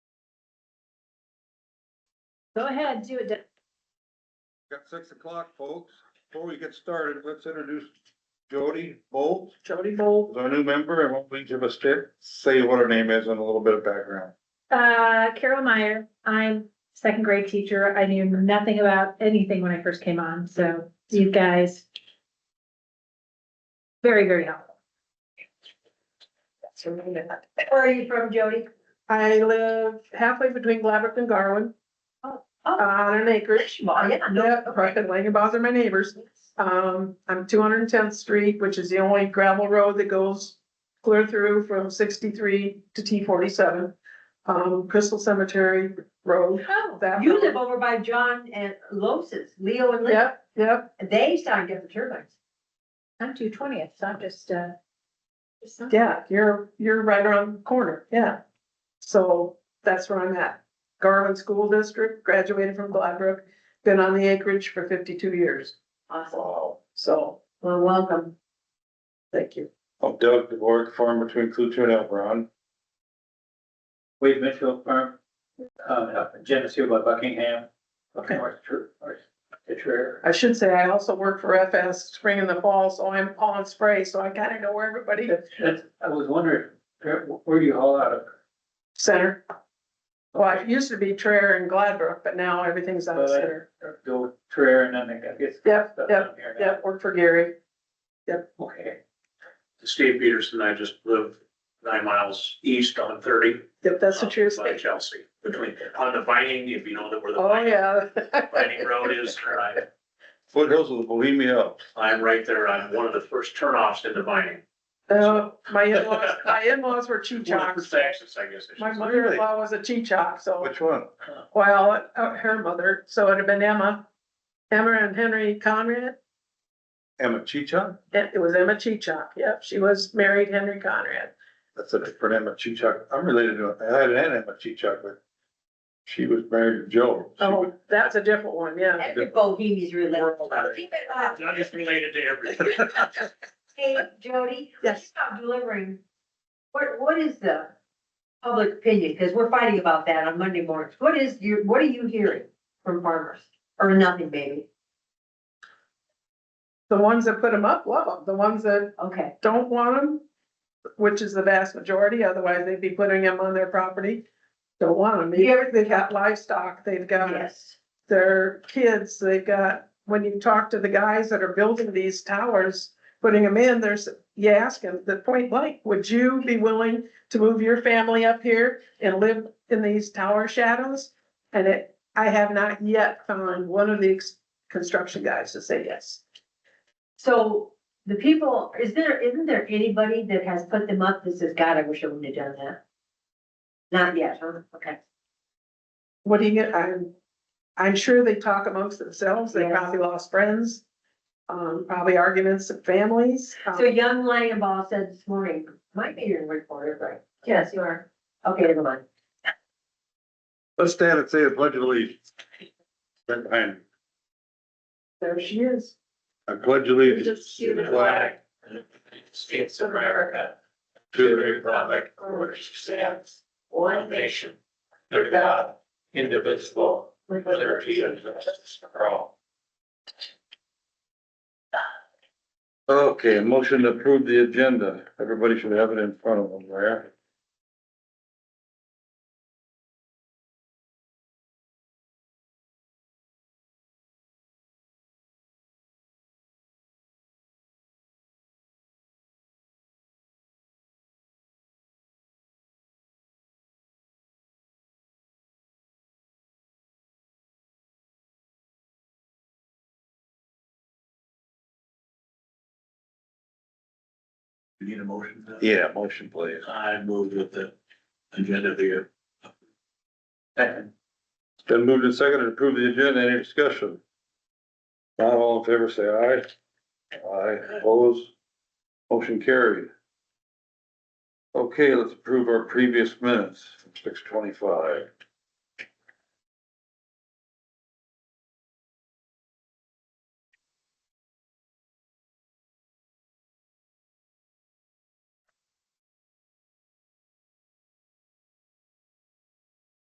Go ahead, do it. Doug. Got six o'clock, folks. Before we get started, let's introduce Jody Bolt. Jody Bolt, is our new member. I won't leave you a stick. Say what her name is and a little bit of background. Uh, Carol Meyer, I'm second grade teacher. I knew nothing about anything when I first came on, so you guys. Very, very helpful. that's her name. Where are you from, Jody? I live halfway between Glaverick and Garwin. Oh, oh. On an acreage. Well, yeah, no, Yeah, right, and Langenbaugh are my neighbors. Um, I'm two hundred and tenth street, which is the only gravel road that goes clear through from sixty-three to T forty-seven. Um, Crystal Cemetery Road. Oh, That you road. live over by John and Loses, Leo and Lynn, Yep, yep, they started getting turbines. I'm two twentieth, so I'm just, uh. just not- yeah, you're, you're right around the corner, yeah. So that's where I'm at. Garwin School District, graduated from Gladbrook, been on the acreage for fifty-two years. Awesome, Wow. So, well, welcome. thank you. I'm Doug DeVore, farm between Clutha and Elbron. Wade Mitchell Farm, um, up in Geneseo by Buckingham, up Okay. north, Tr- north, Trier. I should say I also work for FS spring and the fall, so I'm on spray, so I kind of know where everybody That's, that's, I was wondering, where, where do you haul out of? center. Well, it used to be Traer and Gladbrook, but now everything's out of Well, I- center. Or Go with Trier and then I guess. Yep, stuff yep, down here now. Yep, work for Gary. Okay, Steve Peterson, I just live nine miles east on thirty. Yep, that's what you're um, By saying. Chelsea, between, on the Vining, if you know that where the Oh, Vining, yeah. Vining Road is, there, I, Foothills of the Bohemia Alps. I'm right there, I'm one of the first turnoffs into Vining. Oh, my in-laws, my in-laws were One of the Cheechocks. first exits, I guess. I should My say. mother-in-law was a Cheechak, so. Which one? Well, uh, her mother, so it'd have been Emma, Emma and Henry Conrad. Emma Chichon? It it was Emma Cheechak, yep, she was married Henry Conrad. That's a different Emma Chichon. I'm related to, I had an Emma Chichon, but she was married to Joe. She was- Oh, that's a different one, yeah. Every bohemian's really. We're all married. Keep it up. Doug is related to everything. Hey, Jody. Yes. About delivering, what, what is the public opinion? Because we're fighting about that on Monday mornings. What is your, what are you hearing from farmers? Or nothing, maybe? The ones that put them up, love them. The ones that Okay, don't want them, which is the vast majority, otherwise they'd be putting them on their property. Don't want them. They- They've got livestock, they've got yes. their kids, they've got, when you talk to the guys that are building these towers, putting them in, there's, you ask them, the point blank, would you be willing to move your family up here and live in these tower shadows? And it, I have not yet found one of the ex- construction guys to say yes. So the people, is there, isn't there anybody that has put them up that says, God, I wish I wouldn't have done that? Not yet, huh? Okay. What do you get, I'm, I'm sure they talk amongst themselves, they Yes. probably lost friends, um, probably arguments of families. um, So young Langenbaugh said this morning, might be your reporter, right? Yes, you are. Okay, never mind. Let's stand and say the pledge of allegiance. Right behind me. There she is. I pledge allegiance Just to to the the flag, States of America, to the republic, for which stands one nation, under God, indivisible, with liberty and justice for all. Okay, a motion to approve the agenda. Everybody should have it in front of them there. You need a motion? for that? Yeah, motion please. I move with the agenda be second, Then moved and seconded to approve the agenda. Any discussion? Not all in favor, say aye. Aye, opposed. Motion carried. Okay, let's approve our previous minutes, six twenty-five.